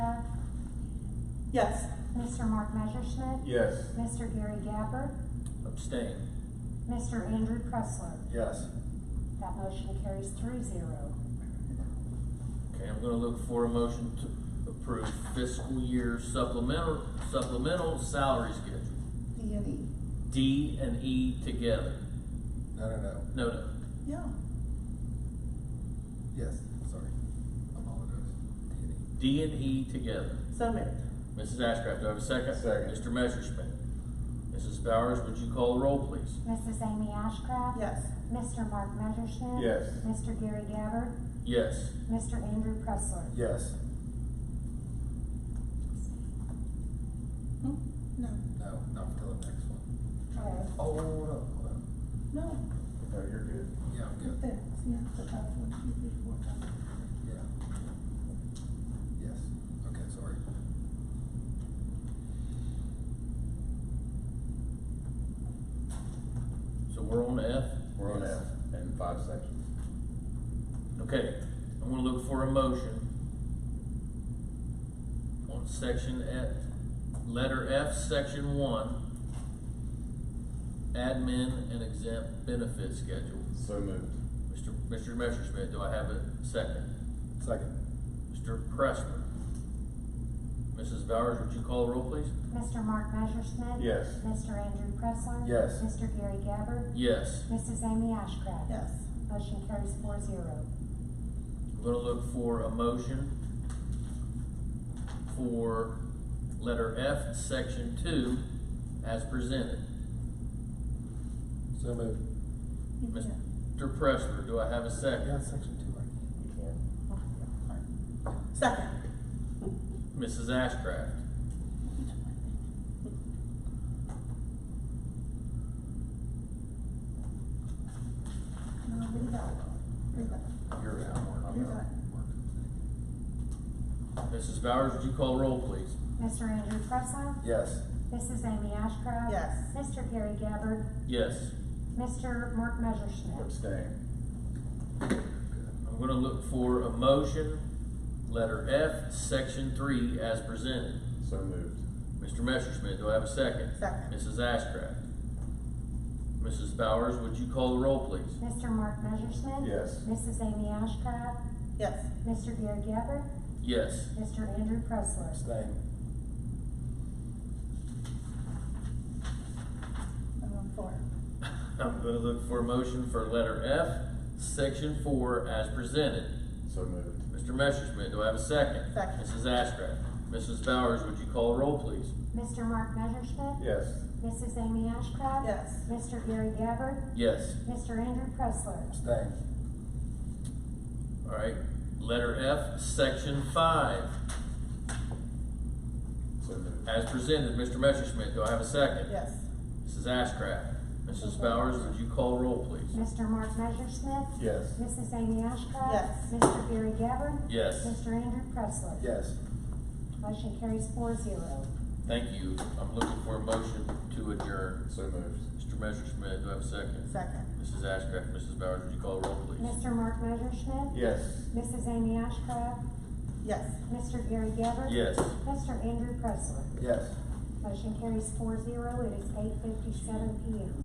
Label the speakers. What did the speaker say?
Speaker 1: Yes.
Speaker 2: Mr. Mark Messerschmidt.
Speaker 3: Yes.
Speaker 2: Mr. Gary Gabber.
Speaker 4: Abstain.
Speaker 2: Mr. Andrew Pressler.
Speaker 3: Yes.
Speaker 2: That motion carries three zero.
Speaker 4: Okay, I'm gonna look for a motion to approve fiscal year supplemental, supplemental salary schedule.
Speaker 1: D and E.
Speaker 4: D and E together.
Speaker 3: No, no, no.
Speaker 4: No, no.
Speaker 1: Yeah.
Speaker 3: Yes, sorry. Apologize.
Speaker 4: D and E together.
Speaker 1: So moved.
Speaker 4: Mrs. Ashcraft, do I have a second?
Speaker 3: Second.
Speaker 4: Mr. Messerschmidt. Mrs. Bowers, would you call the roll, please?
Speaker 2: Mrs. Amy Ashcraft.
Speaker 1: Yes.
Speaker 2: Mr. Mark Messerschmidt.
Speaker 3: Yes.
Speaker 2: Mr. Gary Gabber.
Speaker 4: Yes.
Speaker 2: Mr. Andrew Pressler.
Speaker 3: Yes.
Speaker 1: Hmm? No.
Speaker 3: No, not till the next one.
Speaker 2: Okay.
Speaker 3: Oh, hold on, hold on.
Speaker 1: No.
Speaker 3: No, you're good. Yeah, I'm
Speaker 1: Right
Speaker 3: good.
Speaker 1: there. See, that's the top one, two, three, four, five.
Speaker 3: Yeah. Yes, okay, sorry.
Speaker 4: So we're on F?
Speaker 3: We're on
Speaker 5: Yes.
Speaker 3: F and five sections.
Speaker 4: Okay, I'm gonna look for a motion on section F, letter F, section one, admin and exempt benefit schedule.
Speaker 5: So moved.
Speaker 4: Mr. Mr. Messerschmidt, do I have a second?
Speaker 3: Second.
Speaker 4: Mr. Pressler? Mrs. Bowers, would you call the roll, please?
Speaker 2: Mr. Mark Messerschmidt.
Speaker 5: Yes.
Speaker 2: Mr. Andrew Pressler.
Speaker 3: Yes.
Speaker 2: Mr. Gary Gabber.
Speaker 4: Yes.
Speaker 2: Mrs. Amy Ashcraft.
Speaker 1: Yes.
Speaker 2: Motion carries four zero.
Speaker 4: I'm gonna look for a motion for letter F, section two, as presented.
Speaker 3: So moved.
Speaker 1: You can.
Speaker 4: Mr. Pressler, do I have a second?
Speaker 3: section two, I can.
Speaker 1: You can. Oh, yeah, all right. Second.
Speaker 4: Mrs. Ashcraft?
Speaker 1: No, leave that alone. Leave that.
Speaker 3: You're out, Mark. I'm
Speaker 1: You're
Speaker 3: out.
Speaker 1: done.
Speaker 3: Mark.
Speaker 4: Mrs. Bowers, would you call roll, please?
Speaker 2: Mr. Andrew Pressler.
Speaker 3: Yes.
Speaker 2: Mrs. Amy Ashcraft.
Speaker 1: Yes.
Speaker 2: Mr. Gary Gabbard.
Speaker 4: Yes.
Speaker 2: Mr. Mark Messerschmidt.
Speaker 3: Abstain.
Speaker 4: I'm gonna look for a motion, letter F, section three, as presented.
Speaker 5: So moved.
Speaker 4: Mr. Messerschmidt, do I have a second?
Speaker 1: Second.
Speaker 4: Mrs. Ashcraft? Mrs. Bowers, would you call the roll, please?
Speaker 2: Mr. Mark Messerschmidt.
Speaker 5: Yes.
Speaker 2: Mrs. Amy Ashcraft.
Speaker 1: Yes.
Speaker 2: Mr. Gary Gabbard.
Speaker 4: Yes.
Speaker 2: Mr. Andrew Pressler.
Speaker 3: Abstain.
Speaker 1: And then four.
Speaker 4: I'm gonna look for a motion for letter F, section four, as presented.
Speaker 5: So moved.
Speaker 4: Mr. Messerschmidt, do I have a second?
Speaker 1: Second.
Speaker 4: Mrs. Ashcraft. Mrs. Bowers, would you call roll, please?
Speaker 2: Mr. Mark Messerschmidt.
Speaker 5: Yes.
Speaker 2: Mrs. Amy Ashcraft.
Speaker 1: Yes.
Speaker 2: Mr. Gary Gabbard.
Speaker 4: Yes.
Speaker 2: Mr. Andrew Pressler.
Speaker 3: Abstain.
Speaker 4: All right. Letter F, Section Five,
Speaker 5: So moved.
Speaker 4: as presented. Mr. Messerschmidt, do I have a second?
Speaker 1: Yes.
Speaker 4: Mrs. Ashcraft. Mrs. Bowers, would you call roll, please?
Speaker 2: Mr. Mark Messerschmidt.
Speaker 5: Yes.
Speaker 2: Mrs. Amy Ashcraft.
Speaker 1: Yes.
Speaker 2: Mr. Gary Gabbard.
Speaker 4: Yes.
Speaker 2: Mr. Andrew Pressler.
Speaker 3: Yes.
Speaker 2: Motion carries four zero.
Speaker 4: Thank you. I'm looking for a motion to adjourn.
Speaker 5: So moved.
Speaker 4: Mr. Messerschmidt, do I have a second?
Speaker 1: Second.
Speaker 4: Mrs. Ashcraft, Mrs. Bowers, would you call roll, please?
Speaker 2: Mr. Mark Messerschmidt.
Speaker 5: Yes.
Speaker 2: Mrs. Amy Ashcraft.
Speaker 1: Yes.
Speaker 2: Mr. Gary Gabbard.
Speaker 4: Yes.
Speaker 2: Mr. Andrew Pressler.
Speaker 3: Yes.
Speaker 2: Motion carries four zero. It is eight fifty-seven P M.